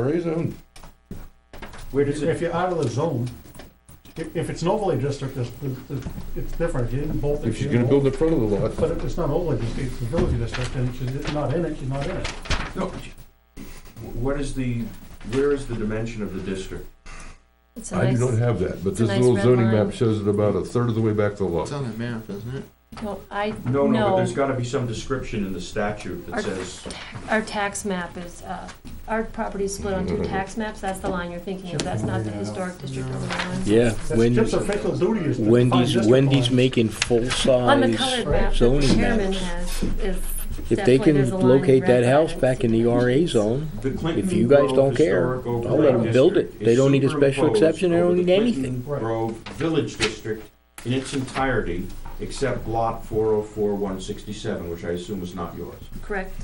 RA zone. Where does If it, you're out of the zone, if, if it's an overlay district, it's, it's- it's different, you didn't bolt it. If she's you gonna didn't build bolt in front of the it. But lot, if it's not overlay district, it's a village district, and she's not in it, she's not in it. no, what is the, where is the dimension of the district? It's a I do nice, not have that, but it's a this nice little red zoning line. map shows it about a third of the way back to the lot. It's on that map, isn't it? no, I, No, no, but no, there's gotta be some description in the statute Our- that says, our tax map is, uh, our property's split on Mm-hmm. two tax maps, that's the line you're thinking of, that's not the historic district overlay line. Yeah, That's Chip's Wendy's, official duty is to define Wendy's, district Wendy's lines. making On the full-size colored map that the zoning chairman maps. has is If they definitely there's can a line in locate red that house line. back in the RA zone, the Clinton If you guys Grove don't care, Historic Overlay I'll let 'em build it. District They don't need a is special superimposed exception. They don't over the need Clinton anything. Right. Grove Village District in its entirety, except lot four oh four one sixty-seven, which I assume is not yours. Correct.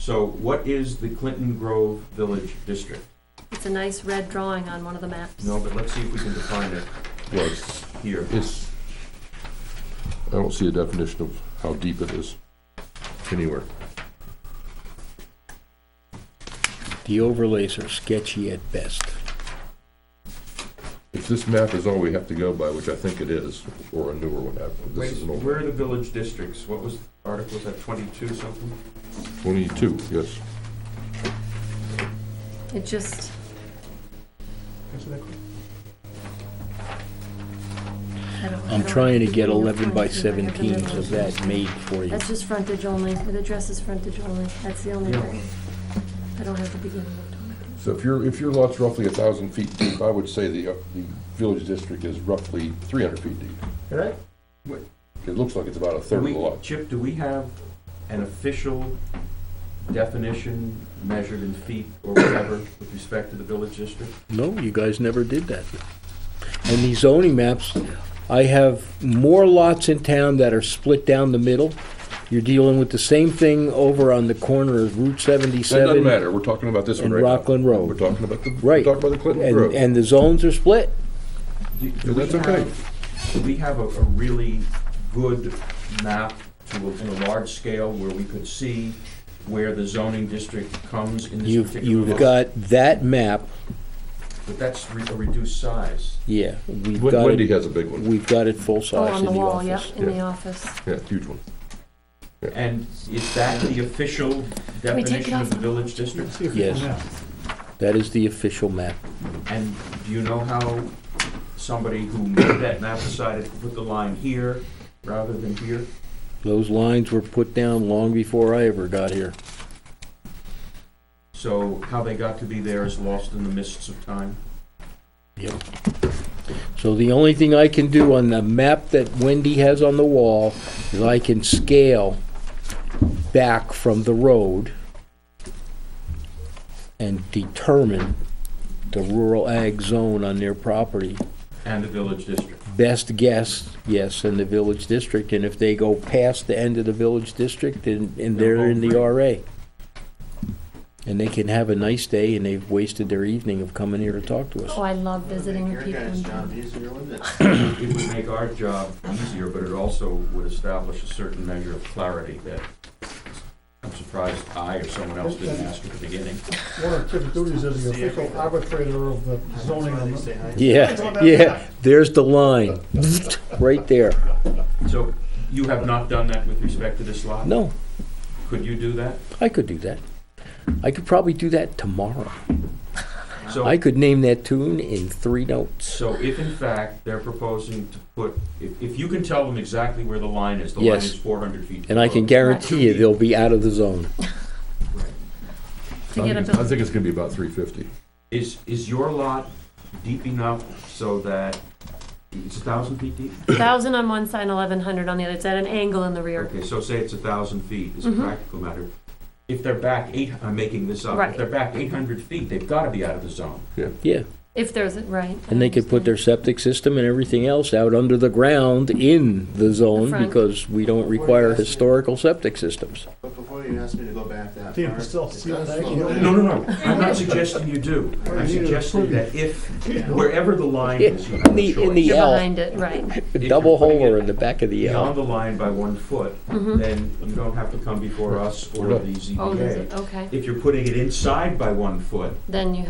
So what is the Clinton Grove Village District? It's a nice red drawing on one of the maps. No, but let's see if we can define it Well, it's- here. It's, I don't see a definition of how deep it is anywhere. the overlays are sketchy at best. If this map is all we have to go by, which I think it is, or a newer one, I- Wait, this is an old where are one. the village districts? What was, article, was that twenty-two something? Twenty-two, yes. It just, Answer that question. I don't. I I'm don't- trying to get I don't eleven by know if I have the seventeens resolution. of that made for you. That's just frontage only, it addresses frontage only, that's the only one. I don't have the beginning of it. So if your, if your lot's roughly a thousand feet deep, I would say the, uh, the village district is roughly three hundred feet deep. Right? It looks like it's about a third of We- the lot. Chip, do we have an official definition measured in feet or whatever with respect to the village district? No, you guys never did that. And these zoning maps, I have more lots in town that are split down the middle. You're dealing with the same thing over on the corner of Route That doesn't seventy-seven. matter, we're talking about this one and right now. Rockland Road. We're talking about the, we're Right. talking about the Clinton And, Grove. and the zones are split. Do- do Yeah, we that's okay. have- Do we have a, a really good map to, a- in a large scale where we could see where the zoning district comes in this You've, particular? you've village? got that map, But that's re- a reduced size. yeah, we've Wen- got Wendy it, has a big one, we've got it full Oh, size on in the the wall, yep, office. in the office. yeah, huge one. And is that the official we take it definition off of the the- village district? See if you Yes. can ask. That is the official map. And do you know how somebody who made that map decided to put the line here rather than here? Those lines were put down long before I ever got here. So how they got to be there is lost in the mists of time? Yep. So the only thing I can do on the map that Wendy has on the wall is I can scale back from the road and determine the rural ag zone on their property. And the village district. Best guess, yes, in the village district, and if they go past the end of the village district, then, and they're in the RA. And they can have a nice day, and they've wasted their evening of coming here to talk to us. Oh, I love visiting Your people. guys' in job town. easier, wouldn't it? It would make our job easier, but it also would establish a certain measure of clarity that I'm surprised I or someone else didn't ask at the beginning. One of Chip's duties is the official arbitrator of the zoning Why on they the say hi. Yeah, yeah, there's the line, right there. So you have not done that with respect to this lot? No, Could you do that? I could do that. I could probably do that tomorrow. So- I could name that tune in three notes. So if in fact they're proposing to put, if, if you can tell them exactly where the line is, the line Yes. is four hundred feet. And I below. can guarantee you, they'll be out of the zone. To get a I think- I building. think it's gonna be about three fifty. Is, is your lot deep enough so that, it's a thousand feet deep? Thousand on one side, eleven hundred on the other, it's at an angle in the rear. Okay, so say it's a thousand feet, as a Mhm. practical matter. If they're back eight, I'm making this up, Right. if they're back eight hundred feet, they've gotta be out of the zone. Yeah, If there's, a right. I and they could put their understand. septic system and everything else out under the ground in the The zone front. because we don't require historical septic systems. But before you somebody asked me to go back that Damn, far. still It see does that. slow No, down. No, no, no, I'm not suggesting you do. Or I'm you suggesting approve. that if, wherever the line is, you have In a the- in the- choice. You're L. behind it, right. A double hole in the back of the Beyond L. the line by one foot, then you don't have to come before us or the Mm-hmm. Oh, there's ZBA. a, okay. If you're putting it inside by one foot, Then you